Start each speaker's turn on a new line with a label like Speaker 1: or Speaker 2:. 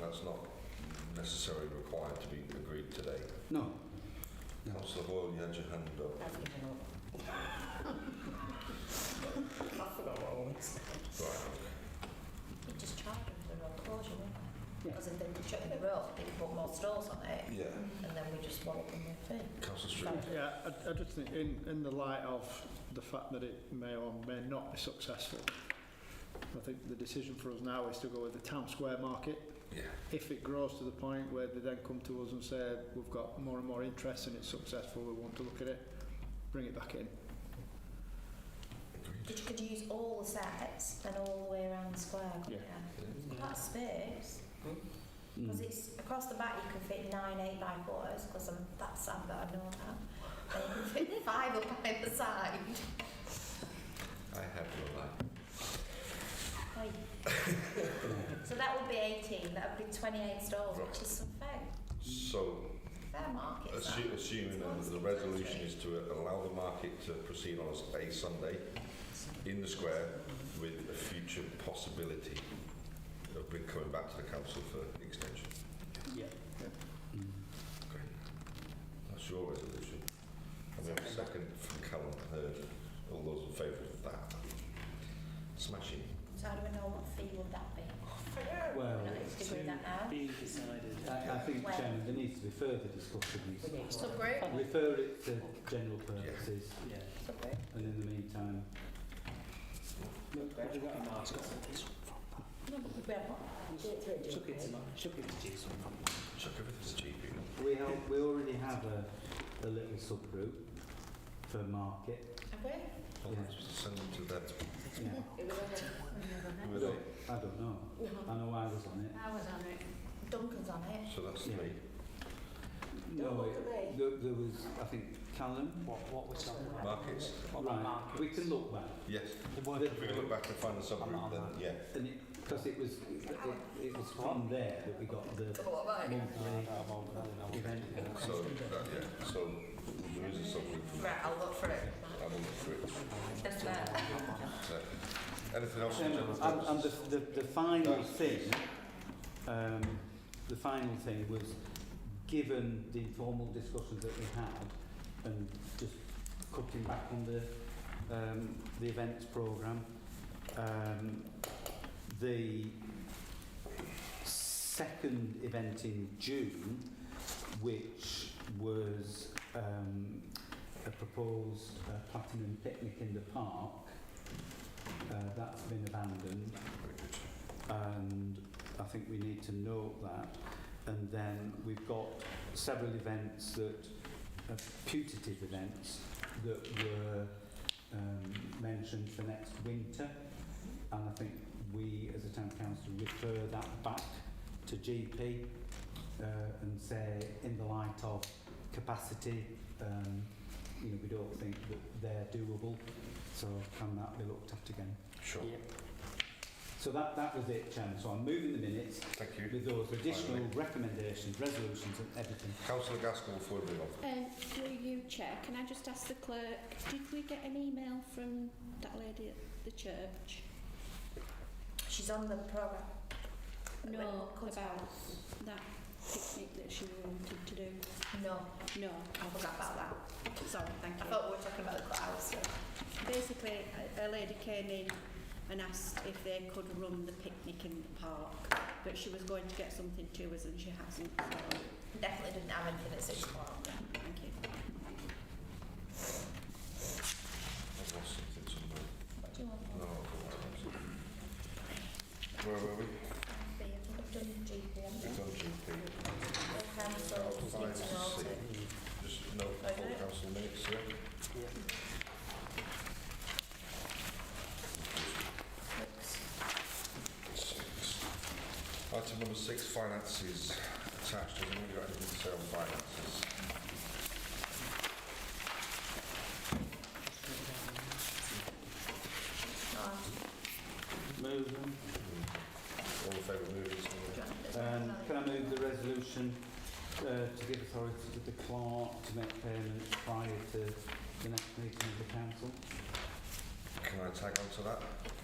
Speaker 1: that's not necessarily required to be agreed today.
Speaker 2: No. No.
Speaker 1: Councillor Boyle, you had your hand up.
Speaker 3: I've given up. I forgot what I wanted to say.
Speaker 1: Right,
Speaker 3: You just charge them for the road closure, wouldn't you?
Speaker 2: Yeah.
Speaker 3: Because if they were shutting the road, they could put more stalls on it,
Speaker 1: yeah.
Speaker 3: and then we just walk them with it.
Speaker 1: Councillor Street.
Speaker 4: Yeah, I, I just think in, in the light of the fact that it may or may not be successful, I think the decision for us now is to go with the town square market.
Speaker 1: Yeah.
Speaker 4: If it grows to the point where they then come to us and say, we've got more and more interest and it's successful, we want to look at it, bring it back in.
Speaker 3: Did you could you use all the sets and all the way around the square, couldn't
Speaker 4: Yeah. Mm.
Speaker 3: you? Quite a space.
Speaker 2: mm,
Speaker 3: Because it's across the back, you can fit nine eight by fours. Because I'm that sad that I know that. And you can fit five up by the side.
Speaker 1: I have no line.
Speaker 3: Aye. so that would be 18. That would be 28 stalls, which is some fair,
Speaker 1: So,
Speaker 3: fair market. that.
Speaker 1: assu- assuming then that the resolution is to allow the market to proceed on a Sunday in the square with a future possibility of bring- coming back to the council for extension.
Speaker 4: Yeah.
Speaker 2: mm.
Speaker 1: Great. That's your resolution. And we have a second from Callum Heard. All those in favour of that? Smashing.
Speaker 3: So how do we know what fee would that be?
Speaker 2: Well,
Speaker 3: We're not going to
Speaker 5: it's
Speaker 3: agree that now.
Speaker 5: being decided.
Speaker 2: I, I think, Chairman, there needs to be further discussion. on this.
Speaker 3: Subgroup.
Speaker 2: Refer it to general purposes,
Speaker 5: Yeah.
Speaker 3: Subgroup.
Speaker 2: and in the meantime,
Speaker 5: Have you got a mark?
Speaker 3: No, but we've got
Speaker 5: Chuck it to Mark. Chuck it to Jason.
Speaker 1: Chuck everything's cheap, you know.
Speaker 2: we, have, we already have a, a little subgroup for market.
Speaker 3: Have we?
Speaker 1: Well, let's Send them to them.
Speaker 2: Yeah.
Speaker 3: It was
Speaker 1: Who are they?
Speaker 2: I don't know. I know I was on it.
Speaker 3: I was on it. Duncan's on it.
Speaker 1: So that's
Speaker 2: Yeah.
Speaker 1: three.
Speaker 2: No,
Speaker 3: look at
Speaker 2: it,
Speaker 3: me.
Speaker 2: there, there was, I think, Callum.
Speaker 5: What, what was talking about?
Speaker 1: Markets.
Speaker 5: What about
Speaker 2: Right,
Speaker 5: markets?
Speaker 2: we can look back.
Speaker 1: Yes.
Speaker 5: The word-
Speaker 1: If we look back and find the subgroup, then yeah.
Speaker 2: And it, because it was, it, it was from there that we got the
Speaker 3: What about
Speaker 2: monthly um,
Speaker 5: I won't- I don't know.
Speaker 2: event.
Speaker 1: So that, yeah. So there is a subgroup. for
Speaker 3: Right,
Speaker 1: that.
Speaker 3: I'll look for it.
Speaker 1: Have a look for it.
Speaker 3: That's that.
Speaker 1: So, anything else?
Speaker 2: Um,
Speaker 1: General
Speaker 2: and, and the,
Speaker 1: purposes?
Speaker 2: the, the final thing, um, the final thing was, given the informal discussions that we had, and just cutting back on the, um, the events programme, um, the second event in June, which was um, a proposed uh, platinum picnic in the park, uh, that's been abandoned
Speaker 1: Very good.
Speaker 2: and I think we need to note that. And then we've got several events that are putative events that were um, mentioned for next winter. And I think we, as a town council, refer that back to GP uh, and say, in the light of capacity, um, you know, we don't think that they're doable. So can that be looked at again?
Speaker 1: Sure.
Speaker 5: Yeah.
Speaker 2: So that, that was it, Chairman. So I'm moving the minutes
Speaker 1: Thank you.
Speaker 2: with those additional
Speaker 1: Finally.
Speaker 2: recommendations, resolutions and everything.
Speaker 1: Councillor Gaskell, before we move on.
Speaker 6: Um, through you, Chair, can I just ask the clerk, did we get an email from that lady at the church?
Speaker 3: She's on the programme.
Speaker 6: No, about that picnic that she wanted to do?
Speaker 3: No,
Speaker 6: No.
Speaker 3: I forgot about that.
Speaker 6: Sorry, thank
Speaker 3: I
Speaker 6: you.
Speaker 3: thought we were talking about the clouds.
Speaker 6: Oh, Basically, a, a lady came in and asked if they could run the picnic in the park, but she was going to get something to us and she hasn't, so,
Speaker 3: Definitely didn't have anything at six o'clock.
Speaker 6: thank you.
Speaker 1: I've lost something somewhere.
Speaker 3: What do you want?
Speaker 1: No, I've got it. Where were we?
Speaker 3: Fee, I think I've done GP,
Speaker 1: We've done GP.
Speaker 3: haven't I? The council
Speaker 1: Oh,
Speaker 3: just
Speaker 1: fine,
Speaker 3: need to know
Speaker 1: see.
Speaker 3: to-
Speaker 1: Just note for
Speaker 3: Okay.
Speaker 1: the council minutes, yeah? Six. Item number six, finances attached. Has anybody got anything to say on finances?
Speaker 3: Oh,
Speaker 2: Move.
Speaker 1: Hmm. All in favour of moving this
Speaker 3: do you
Speaker 1: one?
Speaker 3: want to do
Speaker 2: Um,
Speaker 3: something?
Speaker 2: can I move the resolution uh, to give authority to the clerk to make payments prior to the next meeting of the council?
Speaker 1: Can I tag on to that?